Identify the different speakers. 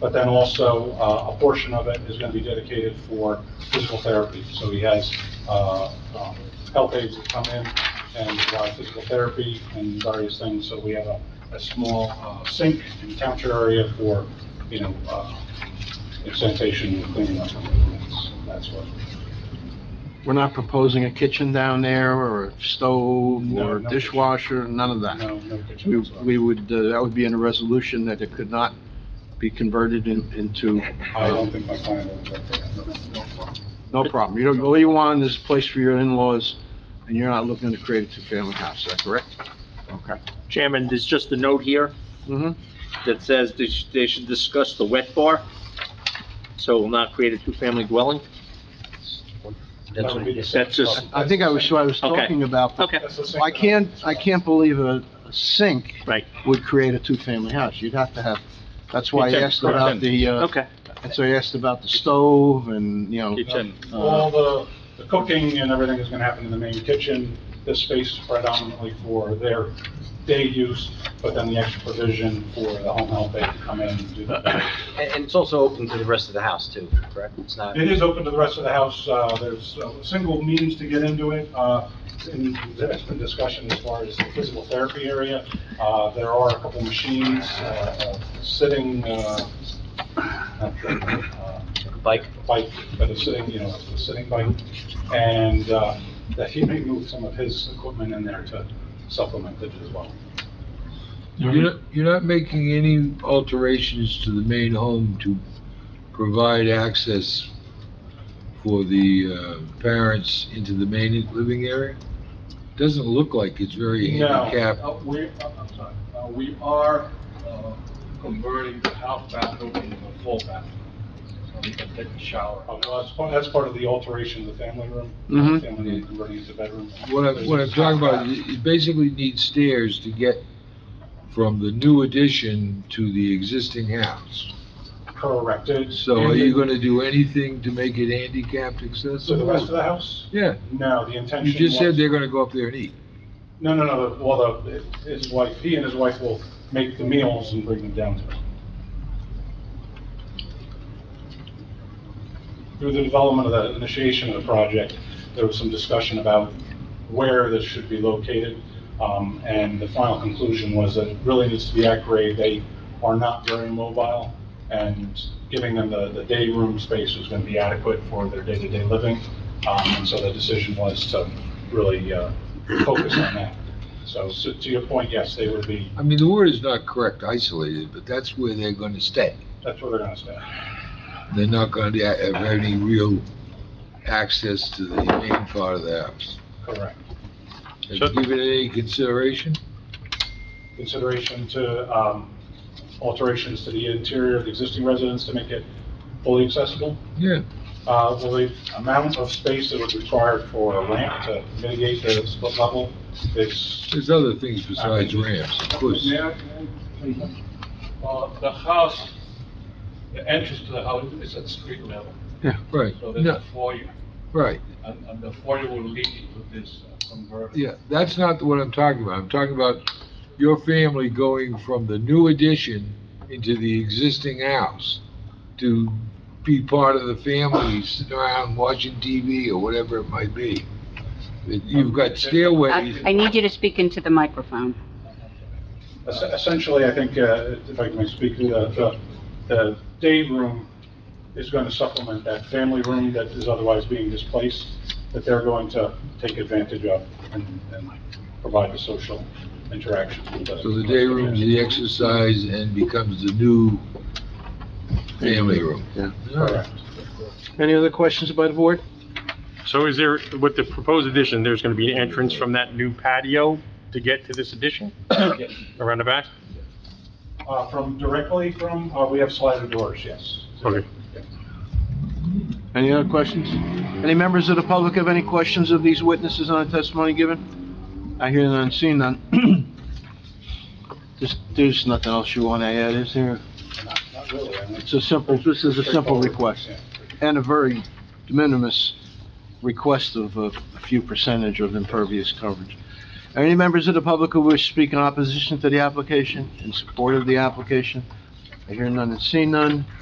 Speaker 1: but then also uh, a portion of it is going to be dedicated for physical therapy. So he has uh, um, health aides that come in and provide physical therapy and various things. So we have a, a small uh, sink and counter area for, you know, uh, sanitation and cleaning up. That's- That's what.
Speaker 2: We're not proposing a kitchen down there, or a stove,
Speaker 1: No,
Speaker 2: or
Speaker 1: no.
Speaker 2: dishwasher, none of that.
Speaker 1: No, no
Speaker 2: We,
Speaker 1: kitchen.
Speaker 2: we would, uh, that would be in a resolution that it could not be converted in, into,
Speaker 1: I don't think my client will object to that.
Speaker 2: no problem. You don't, all you want is a place for your in-laws, and you're not looking to create a two-family house, is that correct? Okay.
Speaker 3: Chairman, there's just a note here
Speaker 1: Mm-hmm.
Speaker 2: hmm
Speaker 3: that says they sh- they should discuss the wet bar, so it will not create a two-family dwelling.
Speaker 1: That would be the
Speaker 3: That's just-
Speaker 2: I think I was, what I was
Speaker 3: Okay.
Speaker 2: talking about. but
Speaker 3: Okay,
Speaker 1: That's the sink.
Speaker 2: I can't, I can't believe a a sink
Speaker 3: right,
Speaker 2: would create a two-family house. You'd have to have, that's why I
Speaker 3: Kitchen,
Speaker 2: asked about
Speaker 3: correct.
Speaker 2: the, uh,
Speaker 3: okay.
Speaker 2: and so I asked about the stove and, you know.
Speaker 3: Kitchen.
Speaker 2: uh,
Speaker 1: All the, the cooking and everything is gonna happen in the main kitchen. This space is predominantly for their day use, but then the extra provision for the home health aide to come in and do that.
Speaker 4: And, and it's also open to the rest of the house too, correct? It's not,
Speaker 1: It is open to the rest of the house, uh, there's uh, single means to get into it, uh, and there's been discussion as far as the physical therapy area. Uh, there are a couple machines, uh, uh, sitting, uh, uh,
Speaker 4: bike,
Speaker 1: bike, but it's sitting, you know, it's a sitting bike, and uh, that he may move some of his equipment in there to supplement it as well.
Speaker 5: You're not, you're not making any alterations to the main home to provide access for the uh, parents into the main living area? Doesn't look like it's very handicapped.
Speaker 6: Uh, We, uh, I'm sorry, Uh, we are uh, converting the half bathroom into a full bathroom, so we can take a shower.
Speaker 1: Uh, well, That's part, that's part of the alteration of the family room.
Speaker 2: Mhm.
Speaker 1: Family room converting into bedroom.
Speaker 5: Mm-hmm. What I'm, what I'm talking about, is you basically need stairs to get from the new addition to the existing house.
Speaker 1: Correct.
Speaker 5: So are you gonna do anything to make it handicapped
Speaker 1: So the rest of
Speaker 5: accessible?
Speaker 1: the house?
Speaker 5: Yeah,
Speaker 1: No, the intention
Speaker 5: you just said
Speaker 1: was-
Speaker 5: they're gonna go up there and eat.
Speaker 1: No, no, no, the- well, the, his wife, he and his wife will make the meals and bring them down to us. Through the development of the initiation of the project, there was some discussion about where this should be located, um, and the final conclusion was that it really needs to be at grade, they are not very mobile, and giving them the, the day room space was gonna be adequate for their day-to-day living, um, and so the decision was to really, uh, focus on that. So, so to your point, yes, they would be,
Speaker 5: I mean, the word is not correct, isolated, but that's where they're gonna stay.
Speaker 1: that's where they're gonna stay.
Speaker 5: They're not gonna be- uh, have any real access to the main part of the house.
Speaker 1: Correct.
Speaker 5: Have you given it any consideration?
Speaker 1: Consideration to, um, alterations to the interior of the existing residence to make it fully accessible.
Speaker 5: Yeah.
Speaker 1: Uh, well, the amount of space that was required for a ramp to mitigate the split level is,
Speaker 5: There's other things besides ramps, of course.
Speaker 6: May I- may I- Uh, The house, the entrance to the house is at street level,
Speaker 5: Yeah, right.
Speaker 6: so there's a
Speaker 5: No,
Speaker 6: foyer,
Speaker 5: right.
Speaker 6: and, and the foyer will lead into this uh, converter.
Speaker 5: Yeah, that's not what I'm talking about. I'm talking about your family going from the new addition into the existing house to be part of the family, sitting around watching TV or whatever it might be. You've got stairways.
Speaker 7: I I need you to speak into the microphone.
Speaker 1: es- essentially, I think, uh, if I can speak to the, the, the day room is going to supplement that family room that is otherwise being displaced, that they're going to take advantage of and, and provide the social interaction. with
Speaker 5: So the day room is the exercise and becomes the new family room.
Speaker 2: Yeah.
Speaker 5: All right.
Speaker 1: Correct.
Speaker 2: Any other questions by the board?
Speaker 8: So is there, with the proposed addition, there's going to be an entrance from that new patio to get to this addition
Speaker 6: Yes.
Speaker 8: around the back?
Speaker 1: Uh, from, directly from, uh, we have slider doors, yes.
Speaker 8: Okay.
Speaker 2: Any other questions? Any members of the public have any questions of these witnesses on the testimony given? I hear none, see none. There's, there's nothing else you want to add, is there?
Speaker 1: Not, not really. I mean,
Speaker 2: It's a simple, this is a simple
Speaker 1: straightforward.
Speaker 2: request,
Speaker 1: Yeah.
Speaker 2: and a very de minimis request of a a few percentage of impervious coverage. Are any members of the public who wish to speak in opposition to the application, in support of the application? I hear none and see none.